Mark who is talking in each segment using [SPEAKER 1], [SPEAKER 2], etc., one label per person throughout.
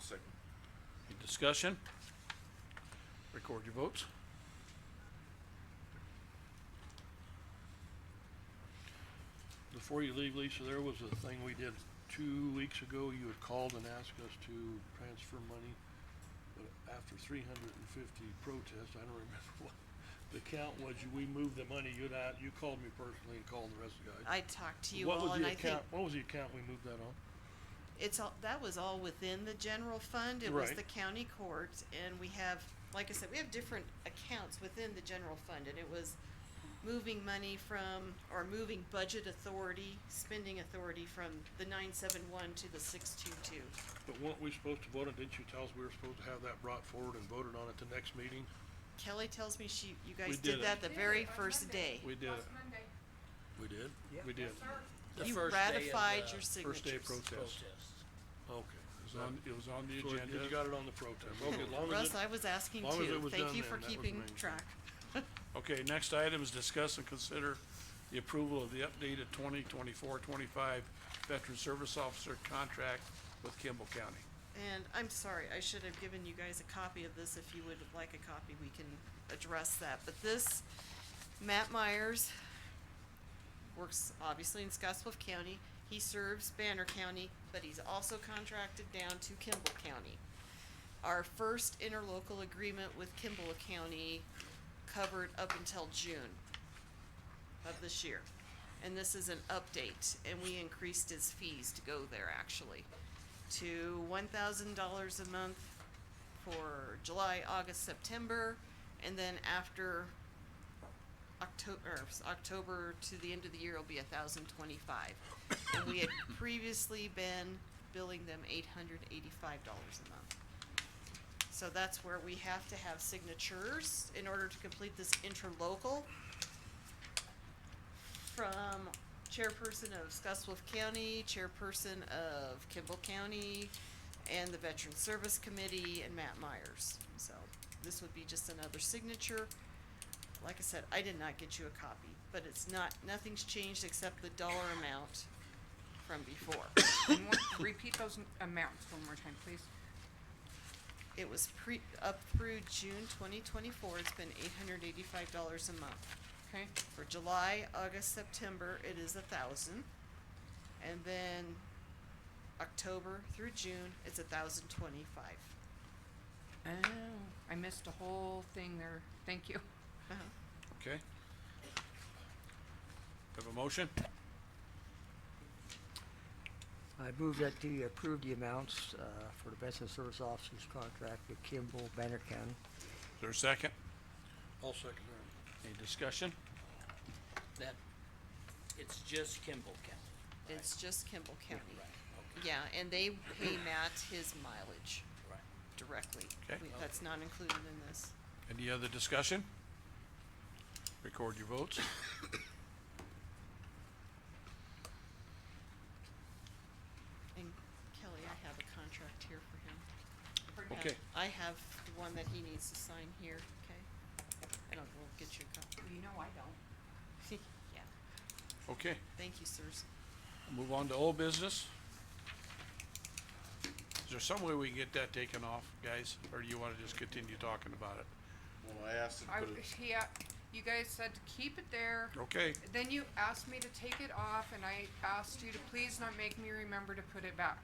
[SPEAKER 1] Second.
[SPEAKER 2] Any discussion? Record your votes. Before you leave, Lisa, there was a thing we did two weeks ago. You had called and asked us to transfer money. But after three hundred and fifty protests, I don't remember what the count was. You- We moved the money. You'd, a- you called me personally and called the rest of the guys.
[SPEAKER 3] I talked to you
[SPEAKER 2] What was
[SPEAKER 3] all and I
[SPEAKER 2] the
[SPEAKER 3] think
[SPEAKER 2] account? What was the account we moved that on?
[SPEAKER 3] it's all, that was all within the general fund. It was
[SPEAKER 2] Right.
[SPEAKER 3] the county court and we have, like I said, we have different accounts within the general fund and it was moving money from, or moving budget authority, spending authority from the nine seven one to the six two two.
[SPEAKER 2] But weren't we supposed to vote on, didn't you tell us we were supposed to have that brought forward and voted on at the next meeting?
[SPEAKER 3] Kelly tells me she, you guys did
[SPEAKER 2] did it.
[SPEAKER 3] that the
[SPEAKER 4] Did it
[SPEAKER 3] very
[SPEAKER 4] on
[SPEAKER 3] first day.
[SPEAKER 4] Monday.
[SPEAKER 2] We did
[SPEAKER 4] Last
[SPEAKER 2] it.
[SPEAKER 4] Monday.
[SPEAKER 2] We did? We
[SPEAKER 4] Yes,
[SPEAKER 2] did.
[SPEAKER 4] sir.
[SPEAKER 5] The
[SPEAKER 3] You
[SPEAKER 5] first day of
[SPEAKER 3] ratified
[SPEAKER 5] the
[SPEAKER 3] your signatures.
[SPEAKER 2] uh, First day of protest.
[SPEAKER 5] Protest.
[SPEAKER 2] Okay.
[SPEAKER 6] It was on, it was on the
[SPEAKER 2] So
[SPEAKER 6] agenda.
[SPEAKER 2] you got it on the protest. Okay, as long as
[SPEAKER 3] Russ,
[SPEAKER 2] it-
[SPEAKER 3] I was asking
[SPEAKER 2] long as it
[SPEAKER 3] too.
[SPEAKER 2] was
[SPEAKER 3] Thank
[SPEAKER 2] done
[SPEAKER 3] you
[SPEAKER 2] then,
[SPEAKER 3] for
[SPEAKER 2] that was
[SPEAKER 3] keeping
[SPEAKER 2] amazing.
[SPEAKER 3] track.
[SPEAKER 2] Okay, next item is discuss and consider the approval of the updated 2024-25 veteran service officer contract with Kimball County.
[SPEAKER 3] And I'm sorry, I should have given you guys a copy of this. If you would like a copy, we can address that. But this, Matt Myers, works obviously in Scottsbluff County. He serves Banner County, but he's also contracted down to Kimball County. Our first interlocal agreement with Kimball County covered up until June of this year. And this is an update, and we increased his fees to go there actually to one thousand dollars a month for July, August, September, and then after October, October to the end of the year will be a thousand twenty-five. And we had previously been billing them eight hundred eighty-five dollars a month. So that's where we have to have signatures in order to complete this interlocal from chairperson of Scottsbluff County, chairperson of Kimball County, and the Veteran Service Committee, and Matt Myers. So this would be just another signature. Like I said, I did not get you a copy, but it's not, nothing's changed except the dollar amount from before.
[SPEAKER 4] And what- Repeat those n- amounts one more time, please.
[SPEAKER 3] It was pre, up through June twenty twenty-four, it's been eight hundred eighty-five dollars a month.
[SPEAKER 4] Okay,
[SPEAKER 3] For July, August, September, it is a thousand. And then October through June, it's a thousand twenty-five.
[SPEAKER 4] oh, I missed a whole thing there, thank you.
[SPEAKER 2] Okay? Have a motion?
[SPEAKER 7] I move that the approve the amounts uh, for the Veteran Service Officers contract with Kimball, Banner County.
[SPEAKER 2] Is there a second?
[SPEAKER 6] I'll second that.
[SPEAKER 2] Any discussion?
[SPEAKER 5] That, it's just Kimball County.
[SPEAKER 3] It's just Kimball County.
[SPEAKER 5] Right,
[SPEAKER 3] Yeah, and they pay Matt his mileage
[SPEAKER 5] okay, right.
[SPEAKER 3] directly.
[SPEAKER 2] Okay.
[SPEAKER 3] We- That's not included in this.
[SPEAKER 2] Any other discussion? Record your votes.
[SPEAKER 3] And Kelly, I have a contract here for him.
[SPEAKER 4] Pardon?
[SPEAKER 2] Okay.
[SPEAKER 3] Um, I have the one that he needs to sign here, okay? I don't, we'll get you a copy.
[SPEAKER 4] You know I don't.
[SPEAKER 3] Yeah,
[SPEAKER 2] Okay,
[SPEAKER 3] thank you, sirs.
[SPEAKER 2] move on to old business. Is there some way we can get that taken off, guys, or do you wanna just continue talking about it?
[SPEAKER 1] Well, I asked
[SPEAKER 4] I,
[SPEAKER 1] him to put it,
[SPEAKER 4] he, a- you guys said to keep it there,
[SPEAKER 2] Okay,
[SPEAKER 4] then you asked me to take it off, and I asked you to please not make me remember to put it back.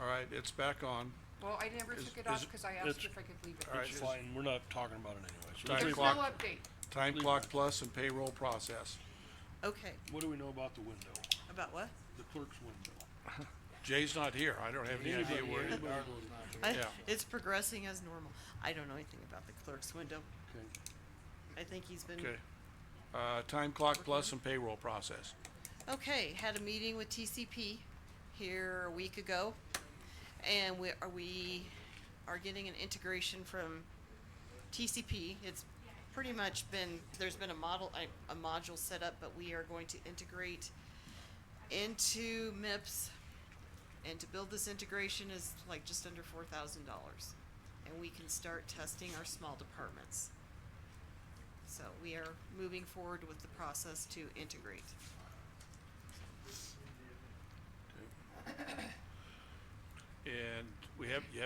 [SPEAKER 2] all right, it's back on.
[SPEAKER 4] Well, I never
[SPEAKER 2] Is-
[SPEAKER 4] took
[SPEAKER 2] is
[SPEAKER 4] it off,
[SPEAKER 2] it-
[SPEAKER 4] cause I
[SPEAKER 2] it's-
[SPEAKER 4] asked you if I could leave it.
[SPEAKER 2] all right,
[SPEAKER 6] It's
[SPEAKER 2] is-
[SPEAKER 6] fine, we're not talking about it anyway. so
[SPEAKER 2] Time
[SPEAKER 4] There's no
[SPEAKER 2] clock.
[SPEAKER 4] update,
[SPEAKER 2] Time
[SPEAKER 6] Leave
[SPEAKER 2] clock
[SPEAKER 6] it.
[SPEAKER 2] plus and payroll process.
[SPEAKER 3] Okay,
[SPEAKER 6] What do we know about the window,
[SPEAKER 3] about what?
[SPEAKER 6] the clerk's window?
[SPEAKER 2] Jay's not here. I don't have any idea where.
[SPEAKER 6] Anybody-
[SPEAKER 2] Okay,
[SPEAKER 3] I-
[SPEAKER 2] Yeah.
[SPEAKER 3] It's progressing as normal. I don't know anything about the clerk's window.
[SPEAKER 6] Okay,
[SPEAKER 3] I think he's been,
[SPEAKER 2] uh, time clock plus and payroll process.
[SPEAKER 3] okay, had a meeting with TCP here a week ago. And we, are we, are getting an integration from TCP. It's pretty much been, there's been a model, a, a module set up, but we are going to integrate into MIPS. And to build this integration is like just under four thousand dollars. And we can start testing our small departments. So we are moving forward with the process to integrate.
[SPEAKER 2] And we have, you have